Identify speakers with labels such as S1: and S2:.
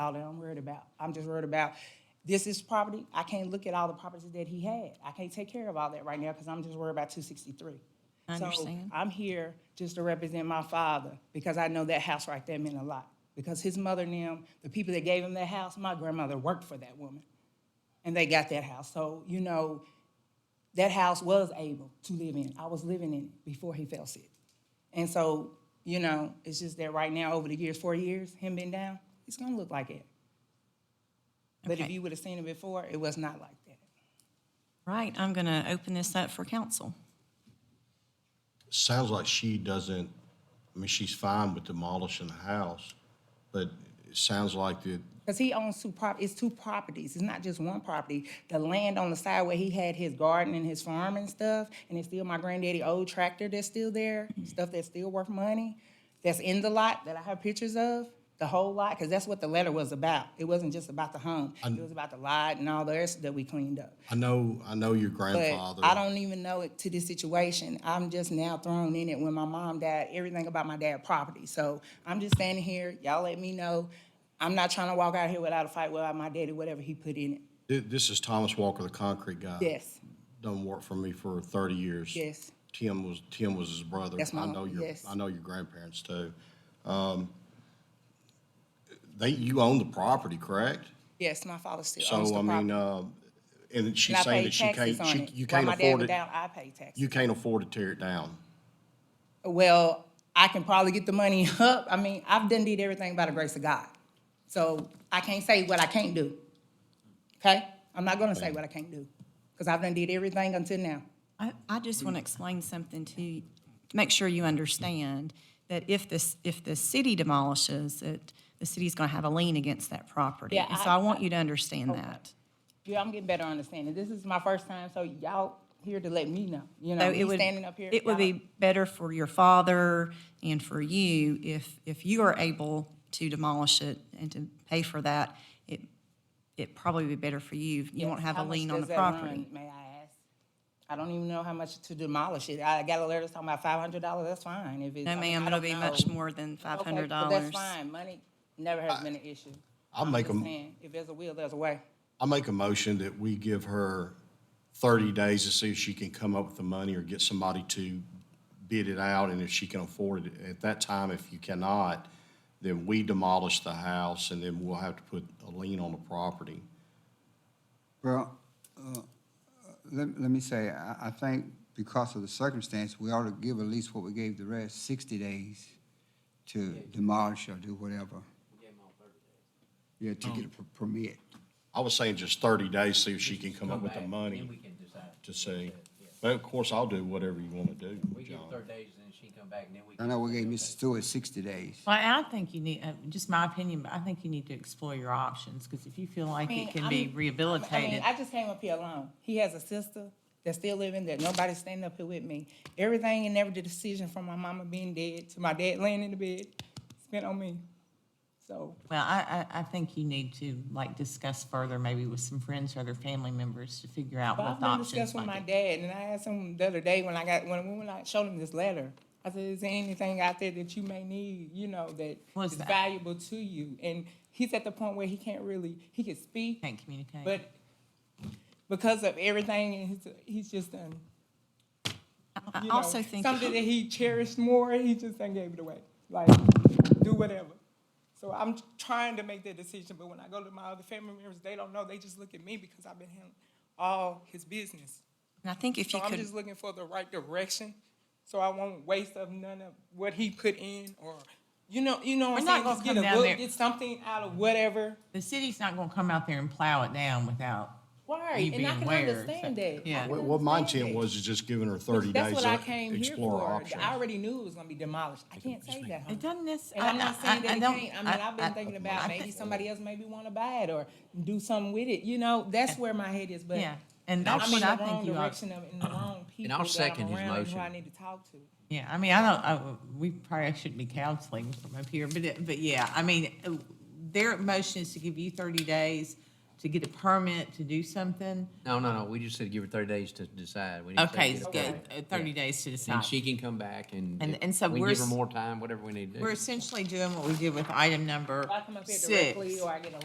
S1: all that I'm worried about. I'm just worried about, this is property, I can't look at all the properties that he had. I can't take care of all that right now, because I'm just worried about two sixty-three.
S2: I understand.
S1: So I'm here just to represent my father, because I know that house right there meant a lot. Because his mother and them, the people that gave him that house, my grandmother worked for that woman, and they got that house. So, you know, that house was able to live in. I was living in it before he fell sick. And so, you know, it's just that right now, over the years, four years, him being down, it's gonna look like it. But if
S2: Okay.
S1: you would have seen it before, it was not like that.
S2: Right, I'm going to open this up for council.
S3: Sounds like she doesn't, I mean, she's fine with demolishing the house, but it sounds like that,
S1: Because he owns two prop, it's two properties, it's not just one property. The land on the side where he had his garden and his farm and stuff, and it's still my granddaddy old tractor that's still there, stuff that's still worth money, that's in the lot that I have pictures of, the whole lot, because that's what the letter was about. It wasn't just about the home, it was about the lot and all the rest that we cleaned up.
S3: I know, I know your
S1: But
S3: grandfather.
S1: I don't even know it to this situation. I'm just now thrown in it when my mom died, everything about my dad property. So I'm just standing here, y'all let me know. I'm not trying to walk out here without a fight, without my daddy, whatever he put in it.
S3: Th- This is Thomas Walker, the concrete guy.
S1: Yes,
S3: Done work for me for thirty years.
S1: yes.
S3: Tim was, Tim was his brother.
S1: That's my
S3: I know
S1: uncle,
S3: your-
S1: yes.
S3: I know your grandparents too. Um, They, you own the property, correct?
S1: Yes, my father still owns
S3: So,
S1: the
S3: I mean,
S1: property.
S3: uh, and she's
S1: And I
S3: saying
S1: pay
S3: that she
S1: taxes
S3: can't,
S1: on
S3: she,
S1: it.
S3: you
S1: While
S3: can't
S1: my dad
S3: afford
S1: was
S3: it,
S1: down, I paid taxes.
S3: you can't afford to tear it down.
S1: Well, I can probably get the money up. I mean, I've done did everything by the grace of God. So I can't say what I can't do. Okay? I'm not gonna say what I can't do, because I've done did everything until now.
S2: I, I just want to explain something to, you to make sure you understand that if this, if the city demolishes it, the city's going to have a lien against that property.
S1: Yeah,
S2: And so
S1: I- Oh,
S2: I want you to understand that.
S1: Yeah, I'm getting better understanding. This is my first time, so y'all here to let me know, you know,
S2: So it
S1: me
S2: would,
S1: oh, standing up here.
S2: it would
S1: y'all-
S2: be better for your father and for you if, if you are able to demolish it and to pay for that. It, it probably would be better for you. You won't have
S1: How
S2: a
S1: much
S2: lien on
S1: does
S2: the
S1: that run,
S2: property.
S1: May I ask? I don't even know how much to demolish it. I got a letter talking about five hundred dollars, that's fine. If it's. I
S2: No,
S1: mean,
S2: ma'am,
S1: I
S2: it'll
S1: don't
S2: be
S1: know.
S2: much more than five
S1: Okay,
S2: hundred
S1: but
S2: dollars.
S1: That's fine. Money never has been an issue.
S3: I'll make
S1: Just
S3: them.
S1: saying, If there's a will, there's a way.
S3: I make a motion that we give her thirty days to see if she can come up with the money or get somebody to bid it out, and if she can afford it. At that time, if you cannot, then we demolish the house, and then we'll have to put a lien on the property.
S4: Well, uh, let, let me say, I, I think because of the circumstance, we ought to give at least what we gave the rest, sixty days to demolish or do whatever. Yeah, to get a per- permit.
S3: I was saying just thirty days, see if she can come up with the
S5: back, Then we
S3: money
S5: can decide.
S3: to see. But of course, I'll do whatever you want to do,
S5: We give her
S3: John.
S5: thirty days, and then she can come back, and then we.
S4: I
S5: can
S4: know we gave
S5: Okay.
S4: Mr. Stewart sixty days.
S6: Well, I think you need, uh, just my opinion, but I think you need to explore your options, because if you feel like
S1: mean,
S6: it can
S1: I'm- I
S6: be
S1: mean, I mean,
S6: rehabilitated,
S1: I just came up here alone. He has a sister that's still living there. Nobody's standing up here with me. Everything and every decision from my mama being dead to my dad laying in the bed, it's been on me. So,
S6: well, I, I, I think you need to, like, discuss further, maybe with some friends or other family members to figure out
S1: but
S6: what
S1: I've
S6: the
S1: been
S6: options
S1: discussing with my
S6: might be.
S1: dad, and I asked him the other day when I got, when, when I showed him this letter, I said, is there anything out there that you may need, you know, that
S6: What's
S1: is
S6: that?
S1: valuable to you? And he's at the point where he can't really, he can speak,
S6: Can't communicate.
S1: but because of everything, and he's, he's just done
S2: I
S1: you know,
S2: also think,
S1: something that he cherished more, he just then gave it away. Like, do whatever. So I'm trying to make that decision, but when I go to my other family members, they don't know. They just look at me because I've been handling all his business.
S2: and I think if
S1: So
S2: you
S1: I'm
S2: could,
S1: just looking for the right direction, so I won't waste of none of what he put in or, you know, you know what I'm
S6: We're not
S1: saying? Just
S6: gonna
S1: get
S6: come
S1: a
S6: down
S1: book,
S6: there.
S1: get something out of whatever.
S6: The city's not gonna come out there and plow it down without
S1: Right,
S6: you
S1: and
S6: being
S1: I can
S6: aware. so-
S1: understand that.
S6: Yeah.
S3: What, what my
S1: understand
S3: intent
S1: that.
S3: was is just giving her thirty
S1: That's
S3: days
S1: what I
S3: to
S1: came here
S3: explore her
S1: for.
S3: options.
S1: I already knew it was gonna be demolished. I can't say that.
S6: It
S1: homie.
S6: doesn't necessarily.
S1: And I'm not saying that it can't, I mean, I've been thinking about maybe somebody else maybe wanna buy it or do something with it, you know, that's where my head is, but
S6: Yeah, and
S1: I'm
S6: that's
S1: in
S6: what I
S1: the wrong
S6: think you ought,
S1: direction of, in the wrong people
S5: I'll
S1: that
S5: second
S1: I'm
S5: his
S1: around and who
S5: motion.
S1: I need to talk to.
S6: yeah, I mean, I don't, I, we probably shouldn't be counseling from up here, but, it- but yeah, I mean, uh, their motion is to give you thirty days to get a permit to do something.
S5: No, no, no, we just said give her thirty days to decide. We didn't say
S6: Okay,
S5: give
S6: it's
S5: her
S6: good,
S5: 30.
S6: uh, thirty days to
S5: Then
S6: decide.
S5: she can come back and.
S6: And-
S5: if
S6: and so
S5: we
S6: we're
S5: Give her
S6: s-
S5: more time, whatever we need to do.
S6: We're essentially doing what we did with item number
S1: If I come up here
S6: six.
S1: directly or I get a